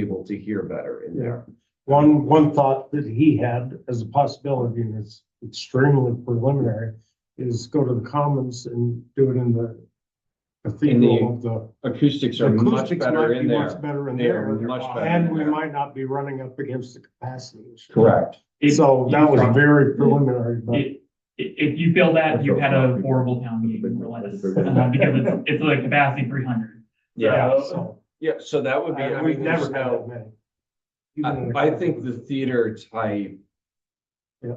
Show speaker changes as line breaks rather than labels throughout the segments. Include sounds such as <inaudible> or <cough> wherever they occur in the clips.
able to hear better in there.
Yeah. One, one thought that he had as a possibility, and it's extremely preliminary, is go to the Commons and do it in the cathedral of the.
Acoustics are much
Acoustics might
better
be
in there.
much better in
They
there.
are much better
And
in
we
there.
might not be running up against the capacity issue.
Correct.
So uh, that was very preliminary, but
If, if you feel that, you had a horrible town meeting, more or less, uh, because it's, it's like capacity three hundred.
Yeah,
yeah, so.
yeah, so that would be, I
I- We've
mean,
never
there's
had that
no,
many.
I,
Even
I
in a-
think the theater type
Yeah.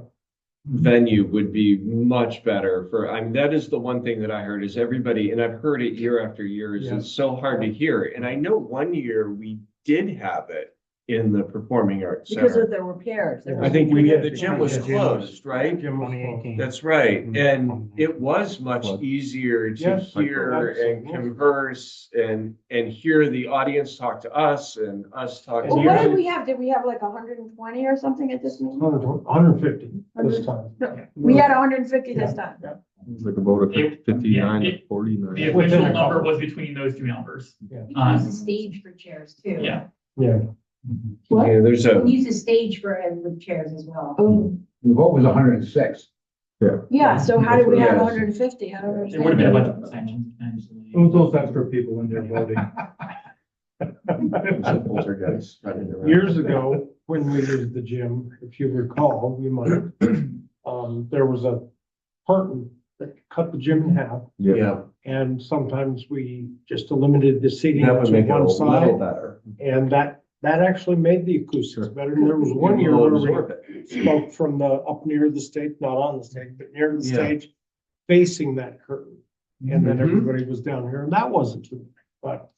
venue would be much better for, I mean, that is the one thing that I heard is everybody, and I've heard it year after year, is
Yeah.
it's so hard to hear. And I know one year we did have it in the Performing Arts
Because
Center.
of the repairs.
Yeah.
I think we,
did,
the gym was
because Jim was-
closed, right?
Jim was close.
That's right,
Mhm.
and it was much
Plug.
easier to
Yes,
hear and
absolutely.
converse and, and hear the audience talk to us and us talk to
Well, what did
you.
we have? Did we have like hundred and twenty or something at this meeting?
100 150 this time.
We had hundred and fifty this time.
It's like a vote of fif-
It-
fifty-nine
yeah,
to
it- The
forty-nine.
official number was between those two numbers.
You
Um,
can use a stage for chairs too.
Yeah.
Yeah. Mm-hmm.
What?
Yeah, there's
You can
a,
use a stage for, uh, with chairs as well.
Oh,
The vote was hundred and six.
yeah, so how did we have
Yes.
hundred and fifty? I don't
There would have been a
understand.
bunch of sanctions potentially.
those extra people in there voting?
<laughs> there's a poltergeist running around.
Years ago, when we used the gym, if you recall, you might,
<clears throat>
um, there was a curtain that cut the gym in half.
Yeah,
And sometimes we just limited the seating
that would
to
make it a
one
little
side.
better.
And that, that actually made the acoustics better. And there was one year
You'll
where we
absorb it.
spoke from the, up near the stage, not on the stage, but near the
Yeah.
stage, facing that curtain. And then
Mhm.
everybody was down here and that wasn't too bad. But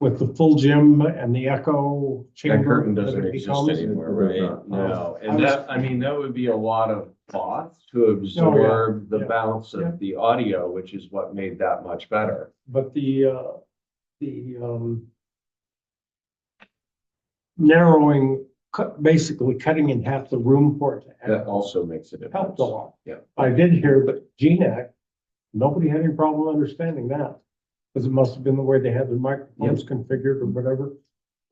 with the full gym and the echo chamber.
That curtain doesn't
that it
exist
becomes,
anymore,
It does not.
right? No,
I
and
was-
that, I mean, that would be a lot of thought to absorb the
yeah.
bounce
Yeah.
of the audio, which is what made that much better.
But the, uh, the, um, narrowing, cut, basically cutting in half the room for it to
That
act
also makes a difference.
helped a lot.
Yeah.
I did hear that GNAC, nobody had any problem understanding that. Because it must have been the way they had the microphones configured or whatever,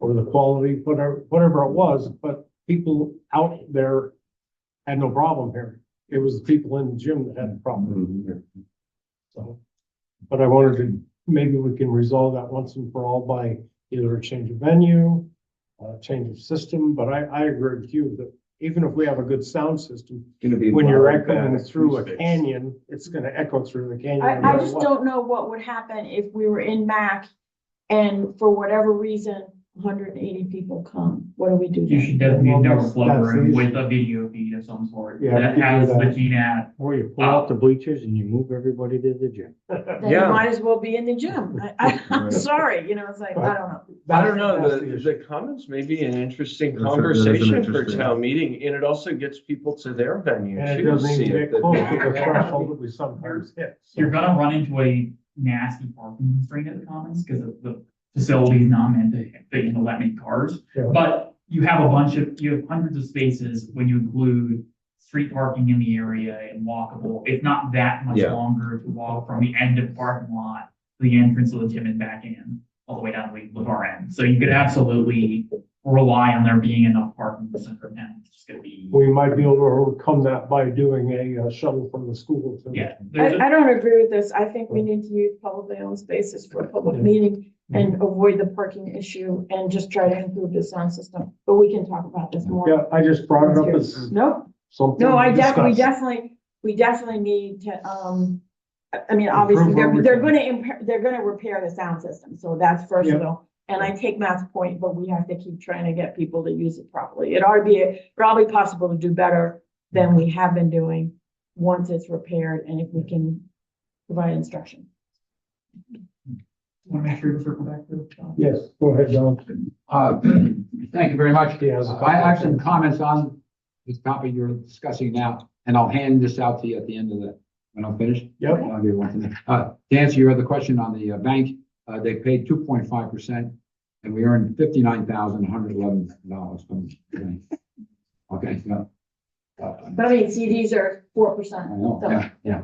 or the quality, whatever, whatever it was, but people out there had no problem here. It was the people in the gym that had the problem,
Mm-hmm.
so. But I wanted to, maybe we can resolve that once and for all by either a change of venue, uh, change of system, but I, I agree with you that even if we have a good sound system,
Gonna be
when you're
loud,
echoing
bad
through a
acoustics.
canyon, it's gonna echo through the canyon.
I,
no
I
matter
just
what.
don't know what would happen if we were in MAC and for whatever reason, hundred and eighty people come. What do we do
You
then?
should definitely do a
That's-
flow
that's
room
easy.
with a video feed of some sort
Yeah, we
that
could do
has the
that.
GNAT.
Or you
pull out
the bleachers and you move everybody to the gym.
Then you
Yeah.
might as well be in the gym. I, I, I'm sorry, you know, it's like, I don't know.
I don't know,
That's
the,
issue.
the comments may be an interesting
That's a- that is an
conversation for
interesting-
town meeting, and it also gets people to their venue
And it
too. to
doesn't
see
even
if
get close
<laughs>
to the
they-
threshold that we sometimes
<laughs>
hit. so.
You're gonna run into a nasty parking constraint at the commons because of the facility's not meant to, to handle that many cars.
Yeah.
But you have a bunch of, you have hundreds of spaces when you include street parking in the area and walkable. It's not that much
Yeah.
longer to walk from the end of parking lot to the entrance of the gym and back in, all the way down to the far end. So you could absolutely rely on there being enough parking in the center of town. It's just gonna be,
We might be able to overcome that by doing a uh, shuttle from the school to.
yeah. there's a-
I, I don't agree with this. I think we need to use publicly owned spaces for a public meeting and avoid the parking issue and just try to improve the sound system, but we can talk about this more.
Yeah, I just brought it up as
No,
something.
no, I
to
definitely, we
discuss.
definitely, we definitely need to, um, I- I mean, obviously,
Improve
they're,
what we
they're
can.
gonna, imp- they're gonna repair the sound system, so that's first of all. And I take Matt's point, but we have to keep trying to get people to use it properly. It ought to be probably possible to do better than we have been doing once it's repaired and if we can provide instruction.
Want to make sure we circle back to the topic.
Yes, go ahead, John.
Uh, <clears throat> thank you very much.
Yes.
Uh, I have some comments on this topic you're discussing now, and I'll hand this out to you at the end of the, when I'm finished.
Yep.
I'll give you one to- Uh, to answer your other question on the uh, bank, uh, they paid two point five percent, and we earned fifty-nine thousand, one hundred eleven dollars from the bank. Okay, so. uh,
But I mean, CDs are four
I
percent,
know,
so,
yeah, Oh, yeah.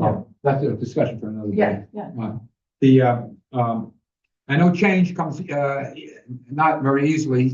Mm-hmm.
Uh, that's a discussion for another day.
yeah, yeah.
Uh, The, uh, um, I know change comes, uh, not very easily,